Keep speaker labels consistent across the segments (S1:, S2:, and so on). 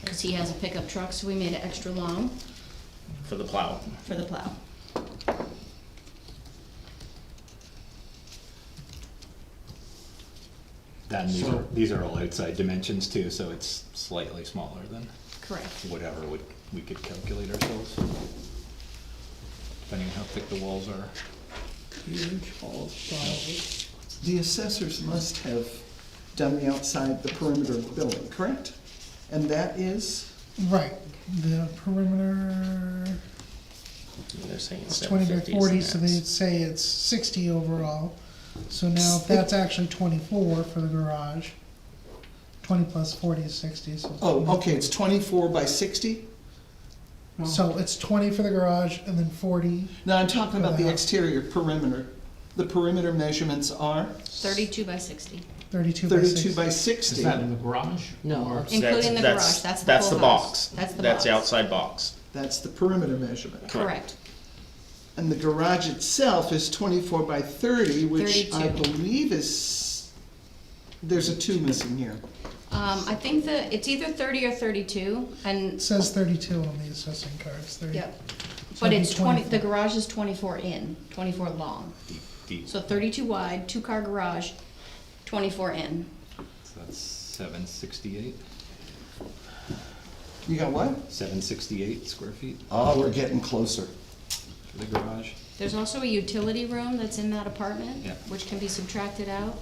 S1: because he has a pickup truck, so we made it extra long
S2: for the plow.
S1: for the plow.
S3: Then these
S4: So-
S3: are, these are all outside dimensions too, so it's slightly smaller than
S1: Correct.
S3: whatever would, we could calculate ourselves. Depending on how thick the walls are.
S4: The assessors must have done the outside, the perimeter of the building, correct? And that is,
S5: Right, the perimeter
S2: They're saying
S5: is
S2: seven
S5: twenty by
S2: fifty
S5: forty,
S2: is
S5: so
S2: the
S5: they'd
S2: max.
S5: say it's sixty overall. So now if that's actually twenty-four for the garage, twenty plus forty is sixty, so.
S4: oh, okay, it's twenty-four by sixty?
S5: So it's twenty for the garage and then forty,
S4: Now, I'm talking about the exterior perimeter. The perimeter measurements are
S1: Thirty-two by sixty,
S5: thirty-two by sixty.
S4: thirty-two by sixty.
S3: the garage?
S6: No,
S1: including the garage,
S2: That's-
S1: that's the
S2: That's
S1: full
S2: the
S1: house.
S2: box.
S1: That's the box.
S2: That's the outside box.
S4: That's the perimeter measurement.
S1: Correct.
S4: And the garage itself is twenty-four by thirty, which I
S1: 32.
S4: believe is, there's a two missing here.
S1: Um, I think the, it's either thirty or thirty-two,
S5: It
S1: and,
S5: says thirty-two on the assessing cards, thirty.
S1: yep.
S5: So
S1: But
S5: it'd be
S1: it's twenty,
S5: 24.
S1: the garage is twenty-four in, twenty-four long.
S3: Deep, deep,
S1: So
S3: so
S1: thirty-two wide, two-car garage, twenty-four in.
S3: that's seven sixty-eight,
S4: You got what?
S3: seven sixty-eight square feet
S4: Oh, we're getting closer.
S3: for the garage.
S1: There's also a utility room that's in that apartment,
S3: Yeah.
S1: which can be subtracted out.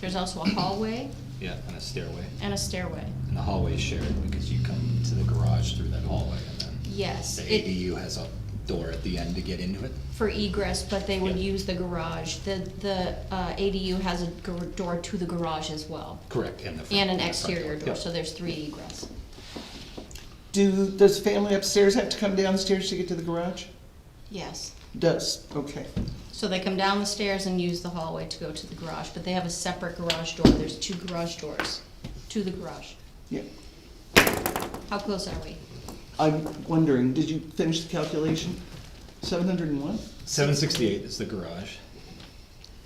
S1: There's also a hallway
S3: Yeah, and a stairway.
S1: and a stairway.
S3: And the hallway's shared because you come to the garage through that hallway and then
S1: Yes,
S3: the
S1: it,
S3: ADU has a door at the end to get into it.
S1: for egress, but they would
S3: Yeah.
S1: use the garage. The, the uh, ADU has a gar- door to the garage as well,
S3: Correct, and the front.
S1: and an
S3: the front
S1: exterior door,
S3: Yep.
S1: so there's three egress.
S4: Do, does the family upstairs have to come downstairs to get to the garage?
S1: Yes.
S4: Does, okay.
S1: So they come down the stairs and use the hallway to go to the garage, but they have a separate garage door. There's two garage doors to the garage.
S4: Yeah.
S1: How close are we?
S4: I'm wondering, did you finish the calculation? Seven hundred and one?
S3: Seven sixty-eight is the garage.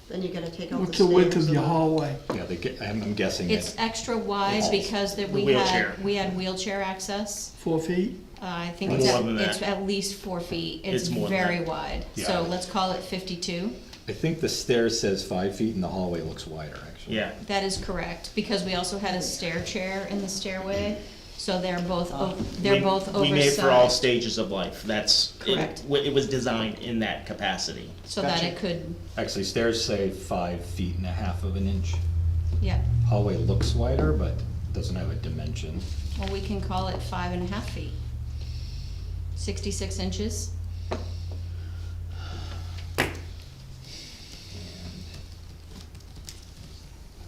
S6: then you're gonna take out the stairs. and the-
S4: hallway?
S3: Yeah, they get, I'm, I'm guessing
S1: It's
S3: it's
S1: extra wide
S3: Yes.
S1: because that
S2: The
S1: we
S2: wheelchair.
S1: had, we had wheelchair access.
S4: Four feet?
S1: Uh, I think
S2: More
S1: it's, at-
S2: than that.
S1: it's at least four feet. It's
S2: It's more than
S1: very
S2: that.
S1: wide.
S3: Yeah.
S1: So let's call it fifty-two.
S3: I think the stair says five feet and the hallway looks wider, actually.
S2: Yeah,
S1: That is correct, because we also had a stair chair in the stairway, so they're both, o- they're
S2: Uh, We-
S1: both
S2: We made for all
S1: oversized.
S2: stages of life, that's, it,
S1: Correct.
S2: wa- it was designed in that capacity.
S1: So that
S4: Gotcha.
S1: it could,
S3: Actually, stairs say five feet and a half of an inch.
S1: yeah,
S3: Hallway looks wider, but doesn't have a dimension.
S1: well, we can call it five and a half feet. Sixty-six inches,
S3: and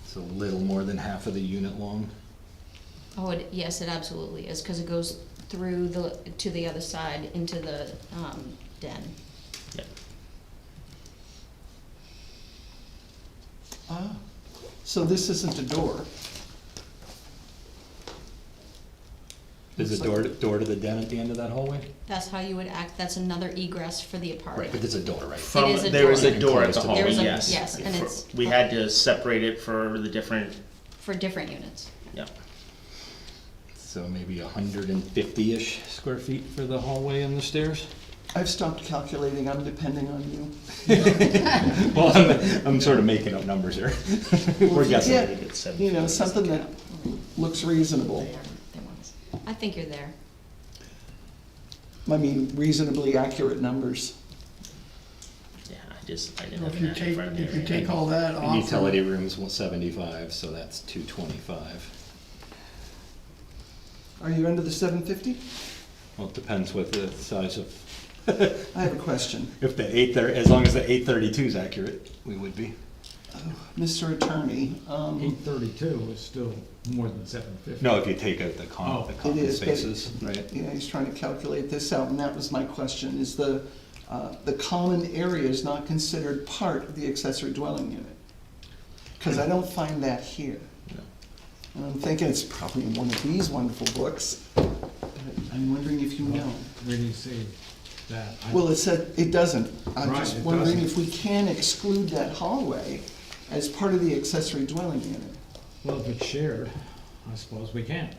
S3: It's a little more than half of the unit long.
S1: oh, it, yes, it absolutely is, cause it goes through the, to the other side into the, um, den.
S2: Yeah.
S4: Ah, so this isn't a door.
S3: There's a door, to- door to the den at the end of that hallway?
S1: That's how you would act, that's another egress for the
S3: Right, but
S1: apartment.
S3: there's a door, right?
S2: From-
S1: is a
S2: There was a
S3: door.
S2: door at the hallway,
S1: There's a-
S2: yes.
S1: yes, and
S2: For-
S1: it's-
S2: We had to separate it for the different,
S1: For different units,
S2: yeah.
S3: So maybe a hundred and fifty-ish square feet for the hallway and the stairs?
S4: I've stopped calculating, I'm depending on you.
S3: Well, I'm, I'm sort of making up numbers here. We're guessing.
S4: Yeah.
S2: We did seven
S4: You know,
S2: feet.
S4: something that looks reasonable.
S1: they are, they want us. I think you're there.
S4: I mean, reasonably accurate numbers.
S2: Yeah, I just, I didn't
S7: Well,
S2: have
S7: If you
S2: that in
S7: take,
S2: front of me.
S7: if you
S2: right
S7: take
S2: now.
S7: all that off.
S3: Utility room's one seventy-five, so that's two twenty-five.
S4: Are you under the seven fifty?
S3: Well, it depends with the size of,
S4: I have a question.
S3: if the eight thirty, as long as the eight thirty-two is accurate, we would be.
S4: Mr. Attorney, um,
S8: Eight thirty-two is still more than seven fifty.
S3: No, if you take out the
S8: Oh.
S3: com, the
S4: it
S3: common
S4: is, but,
S3: spaces, right?
S4: yeah, he's trying to calculate this out, and that was my question, is the, uh, the common area is not considered part of the accessory dwelling unit? Because I don't find that here.
S2: No.
S4: And I'm thinking it's probably in one of these wonderful books, but I'm wondering if you know.
S8: Where do you see that? I-
S4: Well, it said, it doesn't. I'm
S8: Right,
S4: just
S8: it
S4: wondering
S8: doesn't.
S4: if we can exclude that hallway as part of the accessory dwelling unit.
S8: Well, if it's shared, I suppose we can.